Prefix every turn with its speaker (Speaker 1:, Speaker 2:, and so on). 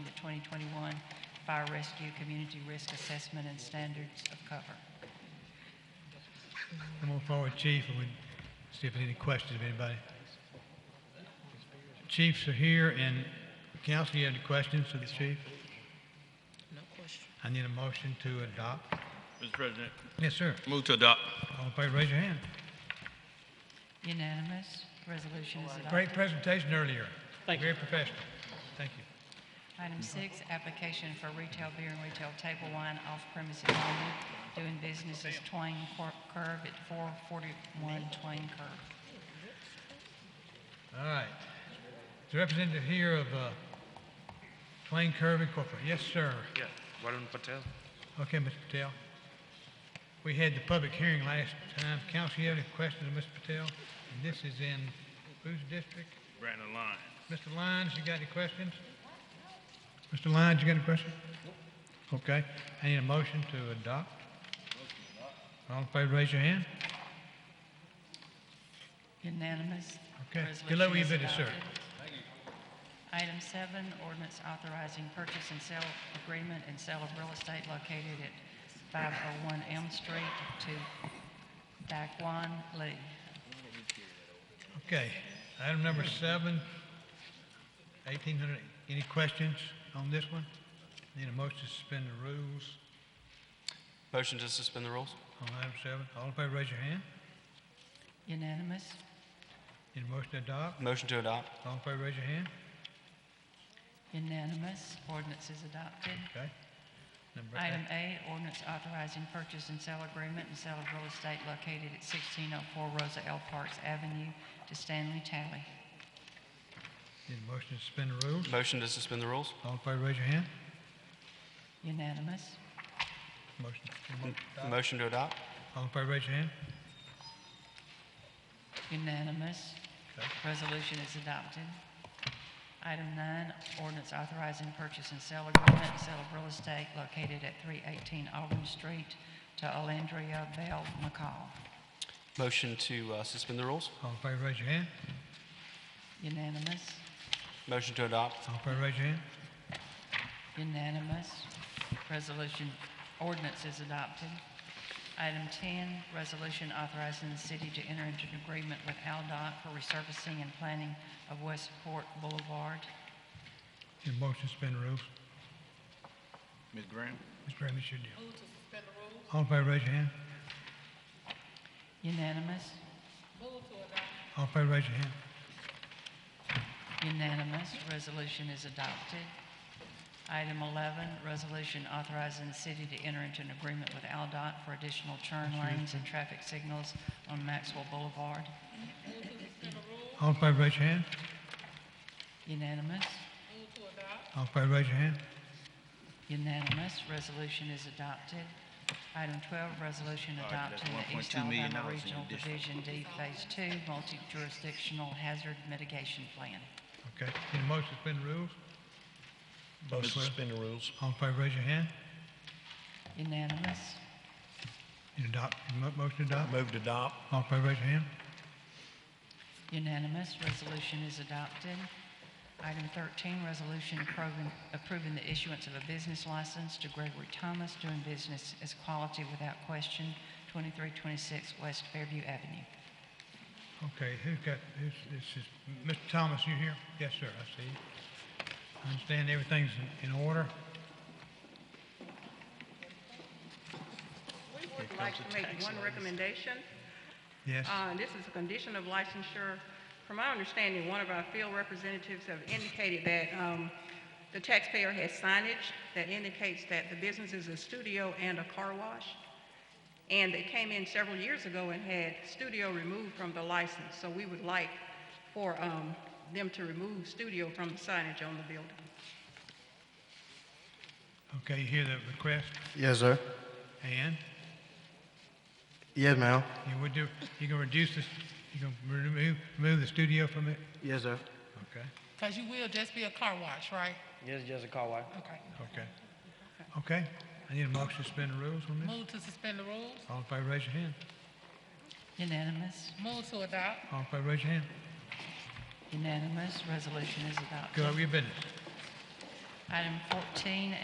Speaker 1: 2021 Fire Rescue Community Risk Assessment and Standards of Cover.
Speaker 2: I'm going forward, Chief, and we see if there's any questions of anybody. Chiefs are here, and council, you have any questions for the chief?
Speaker 3: No question.
Speaker 2: I need a motion to adopt.
Speaker 4: Mr. President.
Speaker 2: Yes, sir.
Speaker 4: Move to adopt.
Speaker 2: All in favor, raise your hand.
Speaker 1: Unanimous, resolution is adopted.
Speaker 2: Great presentation earlier.
Speaker 3: Thank you.
Speaker 2: Very professional. Thank you.
Speaker 1: Item six, application for retail beer and retail table wine off premises only, doing business as Twain Cor- Curve at 441 Twain Curve.
Speaker 2: All right. The representative here of uh, Twain Curve Incorporated. Yes, sir.
Speaker 5: Yeah, Varun Patel.
Speaker 2: Okay, Mr. Patel. We had the public hearing last time. Council, you have any questions of Mr. Patel? And this is in whose district?
Speaker 4: Brandon Lyons.
Speaker 2: Mr. Lyons, you got any questions? Mr. Lyons, you got any questions? Okay. I need a motion to adopt. All in favor, raise your hand.
Speaker 1: Unanimous.
Speaker 2: Okay.
Speaker 1: Resolution
Speaker 2: Good luck with your
Speaker 1: is
Speaker 2: business, sir.
Speaker 1: adopted. Item seven, ordinance authorizing purchase and sale agreement and sale of real estate located at 501 Elm Street to Daquan Lee.
Speaker 2: Okay. Item number seven, 1800. Any questions on this one? Need a motion to suspend the rules
Speaker 5: Motion to suspend the rules?
Speaker 2: on item seven. All in favor, raise your hand.
Speaker 1: Unanimous.
Speaker 2: Need a motion to adopt?
Speaker 5: Motion to adopt?
Speaker 2: All in favor, raise your hand.
Speaker 1: Unanimous. Ordinance is adopted.
Speaker 2: Okay. Number eight.
Speaker 1: Item eight, ordinance authorizing purchase and sale agreement and sale of real estate located at 1604 Rosa L. Parks Avenue to Stanley Talley.
Speaker 2: Need a motion to suspend the rules?
Speaker 5: Motion to suspend the rules?
Speaker 2: All in favor, raise your hand.
Speaker 1: Unanimous.
Speaker 2: Motion. motion to adopt.
Speaker 5: Motion to adopt?
Speaker 2: All in favor, raise your hand.
Speaker 1: Unanimous.
Speaker 2: Okay.
Speaker 1: Resolution is adopted. Item nine, ordinance authorizing purchase and sale agreement, and sale of real estate located at 318 Auburn Street to Alandria Bell McCall.
Speaker 5: Motion to uh, suspend the rules?
Speaker 2: All in favor, raise your hand.
Speaker 1: Unanimous,
Speaker 5: Motion to adopt?
Speaker 2: All in favor, raise your hand.
Speaker 1: unanimous. Resolution, ordinance is adopted. Item 10, resolution authorizing the city to enter into an agreement with AlDOT for resurfacing and planning of Westport Boulevard.
Speaker 2: Need a motion to suspend the rules?
Speaker 4: Ms. Graham.
Speaker 2: Mr. Graham, it's your deal. All in favor, raise your hand.
Speaker 1: Unanimous,
Speaker 2: All in favor, raise your hand.
Speaker 1: Unanimous, resolution is adopted. Item 11, resolution authorizing the city to enter into an agreement with AlDOT for additional turn lanes and traffic signals on Maxwell Boulevard.
Speaker 2: All in favor, raise your hand.
Speaker 1: Unanimous,
Speaker 2: All in favor, raise your hand.
Speaker 1: unanimous, resolution is adopted. Item 12, resolution adopting the East Alabama Regional Division D Phase 2 Multi-Jurisdictional Hazard Mitigation Plan.
Speaker 2: Okay. Need a motion to suspend the rules?
Speaker 4: Motion
Speaker 2: Both
Speaker 4: to
Speaker 2: will.
Speaker 4: suspend the rules.
Speaker 2: All in favor, raise your hand.
Speaker 1: Unanimous,
Speaker 2: Need adopt, mo- motion to adopt?
Speaker 4: Move to adopt.
Speaker 2: All in favor, raise your hand.
Speaker 1: Unanimous, resolution is adopted. Item 13, resolution approving- approving the issuance of a business license to Gregory Thomas doing business as Quality Without Question, 2326 West Fairview Avenue.
Speaker 2: Okay, who's got, who's, this is, Mr. Thomas, you here? Yes, sir, I see you. I understand everything's in, in order.
Speaker 6: We would like to make one recommendation.
Speaker 2: Yes,
Speaker 6: Uh, This is a condition of licensure. From my understanding, one of our field representatives have indicated that um, the taxpayer has signage that indicates that the business is a studio and a car wash. And they came in several years ago and had studio removed from the license. So we would like for um, them to remove studio from the signage on the building.
Speaker 2: okay, you hear the request,
Speaker 7: Yes, sir.
Speaker 2: and
Speaker 7: Yes, ma'am.
Speaker 2: you would do, you gonna reduce this, you gonna remove, remove the studio from it?
Speaker 7: Yes, sir.
Speaker 2: Okay,
Speaker 3: Because you will just be a car wash, right?
Speaker 7: Yes, just a car wash.
Speaker 3: Okay.
Speaker 2: okay. Okay, I need a motion to suspend the rules on this.
Speaker 3: Move to suspend the rules.
Speaker 2: All in favor, raise your hand.
Speaker 1: Unanimous,
Speaker 3: Move to adopt.
Speaker 2: All in favor, raise your hand.
Speaker 1: unanimous, resolution is adopted.
Speaker 2: Go over your business.
Speaker 1: Item 14,